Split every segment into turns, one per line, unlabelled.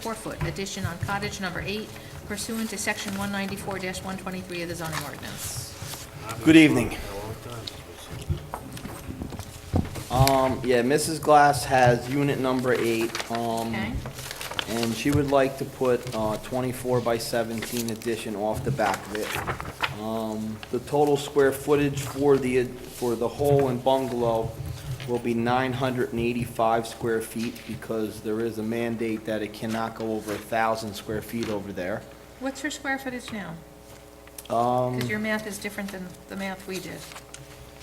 four-foot addition on cottage number eight pursuant to section 194-123 of the zoning ordinance.
Good evening. Um, yeah, Mrs. Glass has unit number eight, um,
Okay?
and she would like to put, uh, twenty-four by seventeen addition off the back of it. Um, the total square footage for the, for the whole and bungalow will be nine hundred and eighty-five square feet, because there is a mandate that it cannot go over a thousand square feet over there.
What's her square footage now?
Um,
Because your math is different than the math we did,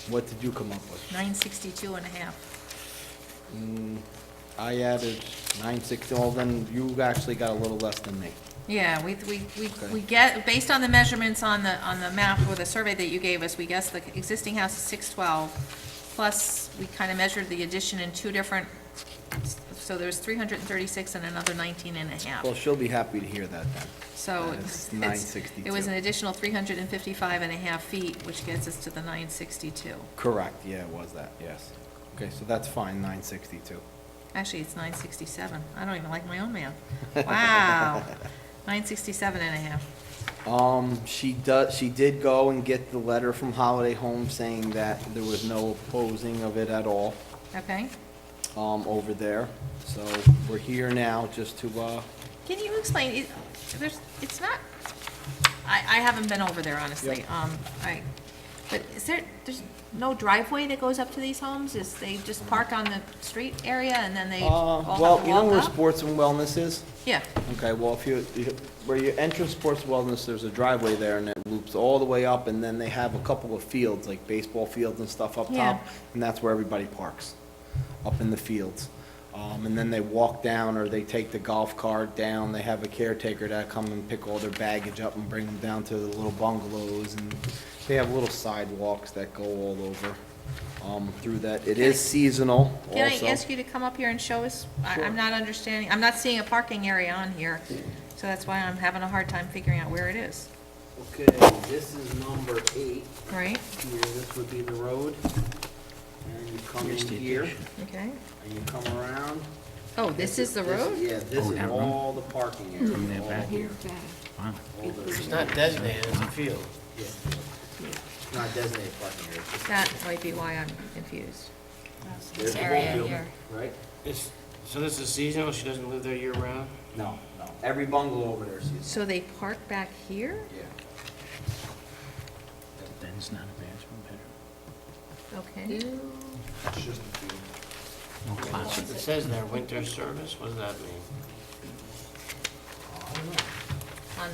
what did you come up with?
962 and a half.
Mm, I added nine sixty, well, then you actually got a little less than me.
Yeah, we, we, we
Okay.
we get, based on the measurements on the, on the map or the survey that you gave us, we guessed the existing house is 612, plus we kind of measured the addition in two different, so there's 336 and another 19 and a half.
Well, she'll be happy to hear that then.
So
And
it's,
Uh, it's
it's- it was
962.
an additional 355 and a half feet, which gets us to the 962.
Correct, yeah, it was that, yes. Okay, so that's fine, nine sixty-two.
Actually, it's 967. I don't even like my own math. Wow. 967 and a half.
Um, she does, she did go and get the letter from Holiday Home saying that there was no opposing of it at all,
Okay?
um, over there. So we're here now just to, uh,
Can you explain, it- there's, it's not, I, I haven't been over there, honestly.
Yep.
Um, I, but is there, there's no driveway that goes up to these homes? Is they just park on the street area and then they all
uh,
have to
well, you know where
walk up?
sports and wellness is?
Yeah,
Okay, well, if you, you- where you enter Sports Wellness, there's a driveway there, and it loops all the way up, and then they have a couple of fields, like baseball fields and stuff up
Yeah.
top, and that's where everybody parks, up in the fields. Um, and then they walk down, or they take the golf cart down, they have a caretaker that come and pick all their baggage up and bring them down to the little bungalows, and they have little sidewalks that go all over, um, through that. It is seasonal also.
Can I ask you to come up here and show us? I-
Sure.
I'm not understanding, I'm not seeing a parking area on here, so that's why I'm having a hard time figuring out where it is,
Okay, this is number eight
right?
here, this would be the road. And you come in here,
Okay.
and you come around.
Oh, this is the road?
Yeah, this is all the parking area, all here. All this-
It's not designated as a field.
yeah. It's Not designated parking area. it's
That might be why I'm confused.
just- There's the whole building, right?
It's, so this is seasonal, she doesn't live there year-round?
No, no, every bungalow over there is used,
So they park back here?
yeah.
Then it's not a bathroom, bedroom,
Okay.
It's just a field.
no closet.
It says there, winter service, what does that mean?
On-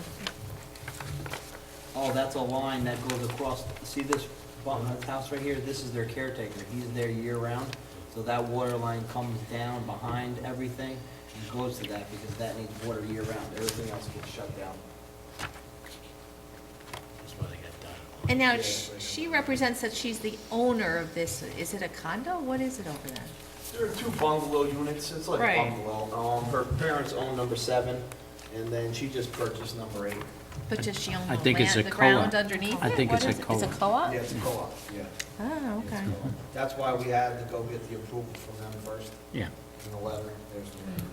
Oh, that's a line that goes across, see this bottom of the house right here? This is their caretaker. He's there year-round, so that water line comes down behind everything and goes to that because that needs water year-round. Everything else gets shut down.
That's why they got done.
And now sh- she represents that she's the owner of this, is it a condo? What is it over there?
There are two bungalow units, it's like
Right.
a bungalow. Um, her parents own number seven, and then she just purchased number eight.
But does she own the
I think it's
land,
a
the ground
co-op.
underneath it?
I think
What
it's a
is it? It's a
co-op.
co-op?
Yeah, it's a co-op, yeah.
Oh, okay.
That's why we had to go get the approval from them first,
Yeah,
in the letter, there's the letter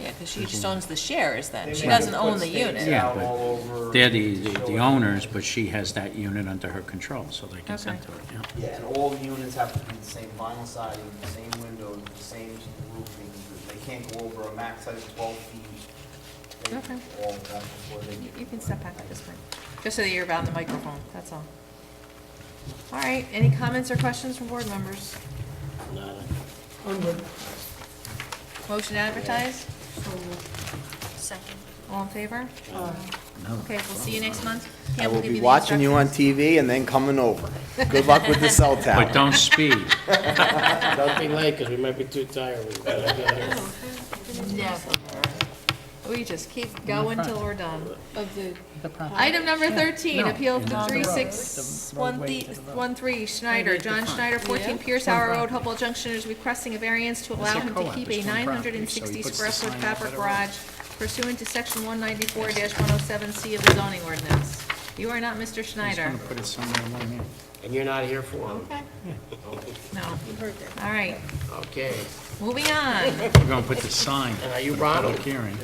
Yeah, because she
Mm-hmm.
just owns the shares
there.
then. She doesn't own the unit.
Yeah,
Out
but
all over
they're the, the
to show
the
it.
owners, but she has that unit under her control, so they can send
Okay.
to it, yeah.
Yeah, and all the units have to be the same vinyl siding, the same windows, the same roofing. They can't go over a max height of twelve feet. They-
Okay.
All of that before they.
You- You can step back at this point, just so that you're around the microphone, that's all. All right, any comments or questions from board members?
Nada.
Motion to advertise? Second. All in favor? Okay, we'll see you next month.
Uh, I
Pam
will
give
be
the
watching you on
instructions.
TV and then coming over. Good luck with the cell tower.
But don't speed.
Don't be late, because we might be too tired. We gotta go there.
We just keep going till we're done. Item number thirteen, appeal to three six one thi- one three Schneider, John Schneider, fourteen Pierce Hour Road, Hopewell Junction is requesting a variance to allow him to keep a nine hundred and sixty square foot fabric garage pursuant to section one ninety-four one oh seven C of the zoning ordinance. You are not Mr. Schneider.
Put it somewhere along here.
And you're not here for them.
Okay. No. All right,
Okay,
moving on.
We're gonna put the sign,
and are you Ronald?
public hearing.